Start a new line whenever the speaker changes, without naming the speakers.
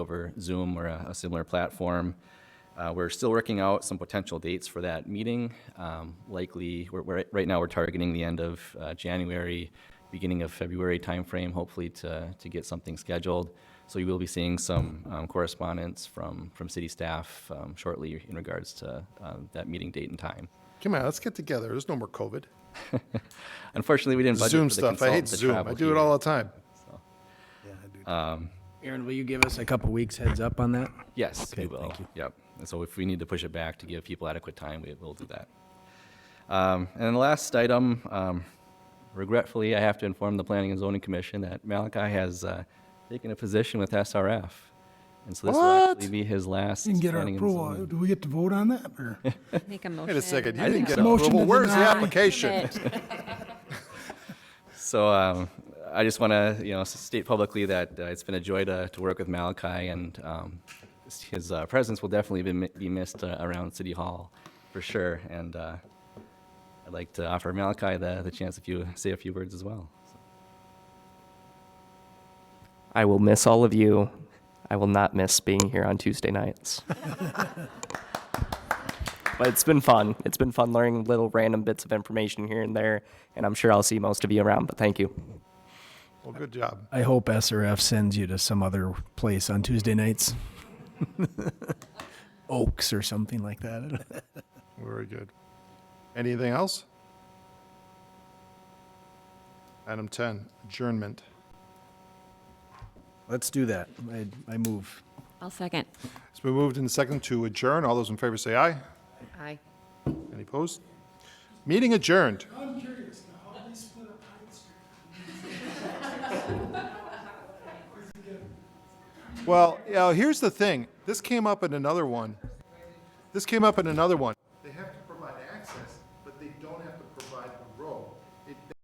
over Zoom or a, a similar platform. Uh, we're still working out some potential dates for that meeting. Um, likely, we're, we're, right now we're targeting the end of uh, January, beginning of February timeframe, hopefully to, to get something scheduled. So you will be seeing some um, correspondence from, from city staff um, shortly in regards to uh, that meeting date and time.
Come on, let's get together. There's no more COVID.
Unfortunately, we didn't budget
Zoom
for the
stuff. I
consultant
hate
to
Zoom. I
travel
do it
here.
all the time.
Aaron, will you give us a couple weeks heads up on that?
Yes, we
Okay,
will.
thank you.
Yep. And so if we need to push it back to give people adequate time, we will do that. Um, and then the last item, um, regretfully, I have to inform the Planning and Zoning Commission that Malachi has uh, taken a position with SRF. And so this will actually
What?
be his last.
Didn't get our
planning and
approval.
zoning-
Do we get to vote on that? or-
Make a motion.
Wait a second. You
I
didn't
think
get
so.
Motion
approval.
to
Where's the
deny.
application?
So um, I just want to, you know, state publicly that uh, it's been a joy to, to work with Malachi, and um, his uh, presence will definitely be, mi- be missed uh, around City Hall, for sure. And uh, I'd like to offer Malachi the, the chance if you say a few words as well.
I will miss all of you. I will not miss being here on Tuesday nights. but it's been fun. It's been fun learning little random bits of information here and there, and I'm sure I'll see most of you around, but thank you.
Well, good job.
I hope SRF sends you to some other place on Tuesday nights. Oaks or something like that.
Very good. Anything else? Item 10, adjournment.
Let's do that. I, I move.
I'll second.
It's been moved and second to adjourn. All those in favor say aye.
Aye.
Any opposed? Meeting adjourned. Well, yeah, here's the thing. This came up in another one. This came up in another one. They have to provide access, but they don't have to provide the road. It-